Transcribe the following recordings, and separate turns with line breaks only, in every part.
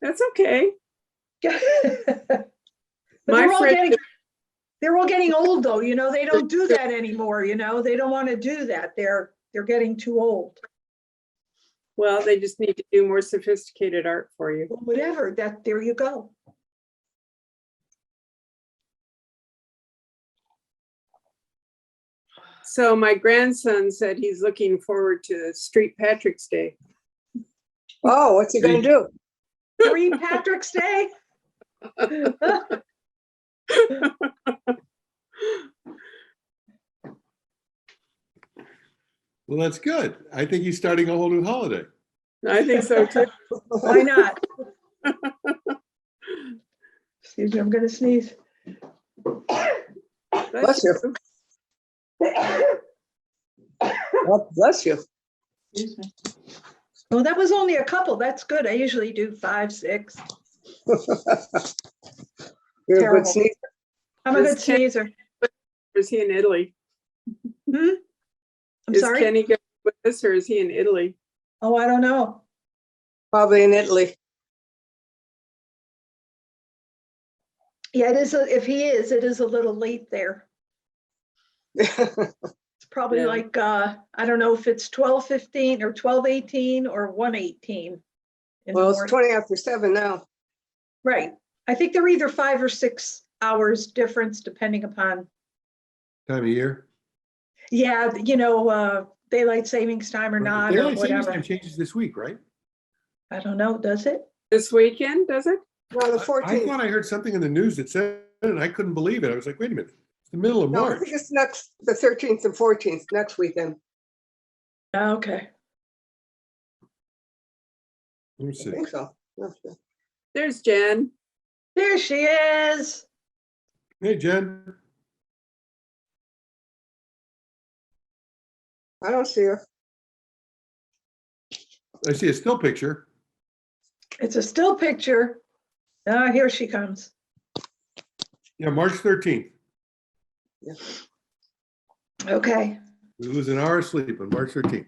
That's okay.
But
My
they're all
friend-
getting, they're all getting old though, you know, they don't do that anymore, you know, they don't want to do that. They're, they're getting too old.
Well, they just need to do more sophisticated art for you.
Well, Whatever, that, there you go.
So my grandson said he's looking forward to Street Patrick's Day.
Oh, what's he gonna do?
Three Patrick's Day?
Well, that's good. I think he's starting a whole new holiday.
I think so too.
Why not? Excuse me, I'm gonna sneeze.
Bless you. Well, bless you.
Well, that was only a couple. That's good. I usually do five, six.
You're a
Terrible.
good sneaker.
I'm a good
Is Ken-
sneezer.
Is he in Italy?
Hmm? I'm
Is
sorry.
Kenny going with us or is he in Italy?
Oh, I don't know.
Probably in Italy.
Yeah, it is, a- if he is, it is a little late there. It's probably
Yeah.
like, uh, I don't know if it's twelve fifteen or twelve eighteen or one eighteen.
Well, it's twenty after seven now.
Right. I think they're either five or six hours difference depending upon,
Time of year.
yeah, you know, uh, daylight savings time or not or
Daylight savings
whatever.
time changes this week, right?
I don't know, does it?
This weekend, does it?
No, the
I
fourteenth.
thought I heard something in the news that said, it, and I couldn't believe it. I was like, wait a minute, it's the middle of
No, I
March.
think it's next, the thirteenth and fourteenth, next weekend.
Okay.
Let me see.
I think so. Okay.
There's Jen.
There she is.
Hey, Jen.
I don't see her.
I see a still picture.
It's a still picture. Ah, here she comes.
Yeah, March 13th.
Okay.
We lose an hour of sleep on March 13th.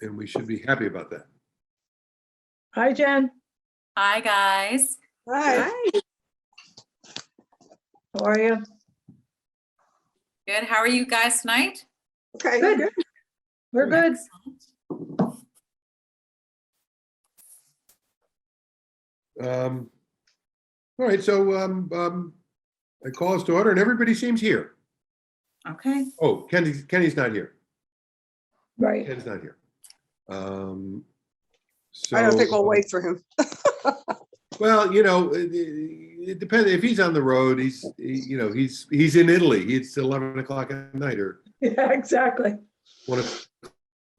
And we should be happy about that.
Hi, Jen.
Hi, guys.
Hi,
Hi.
How are you?
Good. How are you guys tonight?
okay.
Good. We're good.
Um, All right, so um, um, I call us to order and everybody seems here.
Okay.
Oh, Kenny, Kenny's not here.
Right.
Ken's not here. Um, So.
I don't think we'll wait for him.
Well, you know, it- it it depends. If he's on the road, he's, he- you know, he's, he's in Italy. It's 11 o'clock at night or
Yeah, exactly.
one of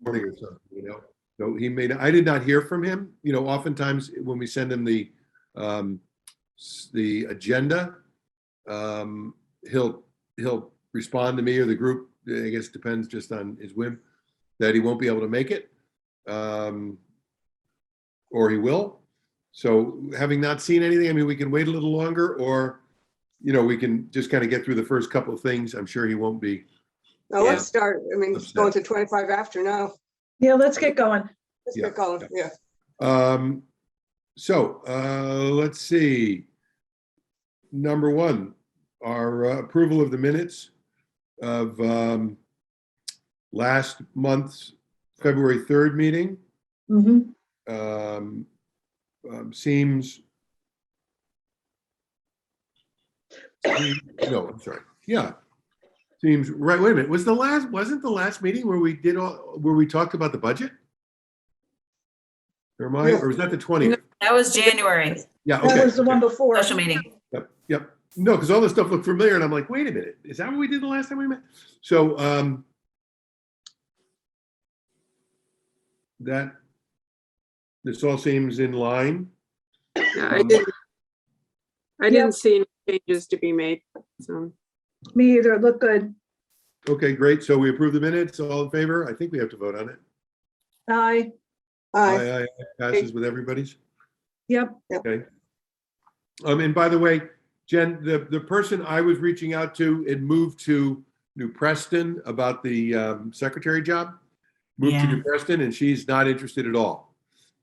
morning or something, you know? So he made, I did not hear from him. You know, oftentimes when we send him the, um, s- the agenda, um, he'll, he'll respond to me or the group, I guess depends just on his whim, that he won't be able to make it. Um, or he will. So having not seen anything, I mean, we can wait a little longer or, you know, we can just kind of get through the first couple of things. I'm sure he won't be
Now, let's start. I mean, it's
Upset.
going to twenty-five after now.
Yeah, let's get going.
Let's
Yeah,
get going. Yeah.
Um, so, uh, let's see. Number one, our uh, approval of the minutes of, um, last month's February 3rd meeting,
Mhm.
um, um, seems. No, I'm sorry. Yeah. Seems, right, wait a minute. Was the last, wasn't the last meeting where we did all, where we talked about the budget? Or am I, or was that the 20th?
That was January
Yeah, okay.
That was the one
okay.
before.
special meeting.
Yep, yep. No, because all this stuff looked familiar and I'm like, wait a minute, is that what we did the last time we met? So, um, that, this all seems in line. Um,
Yeah, I didn't, I
Yep.
didn't see any changes to be made. So,
Me either. It looked good.
Okay, great. So we approve the minutes, all in favor? I think we have to vote on it.
Aye.
Hi.
Aye, aye, aye, Passes with everybody's.
Yep.
Um, and by the way, Jen, the, the person I was reaching out to had moved to New Preston about the um, secretary job. Moved to
Yeah.
New Preston and she's not interested at all.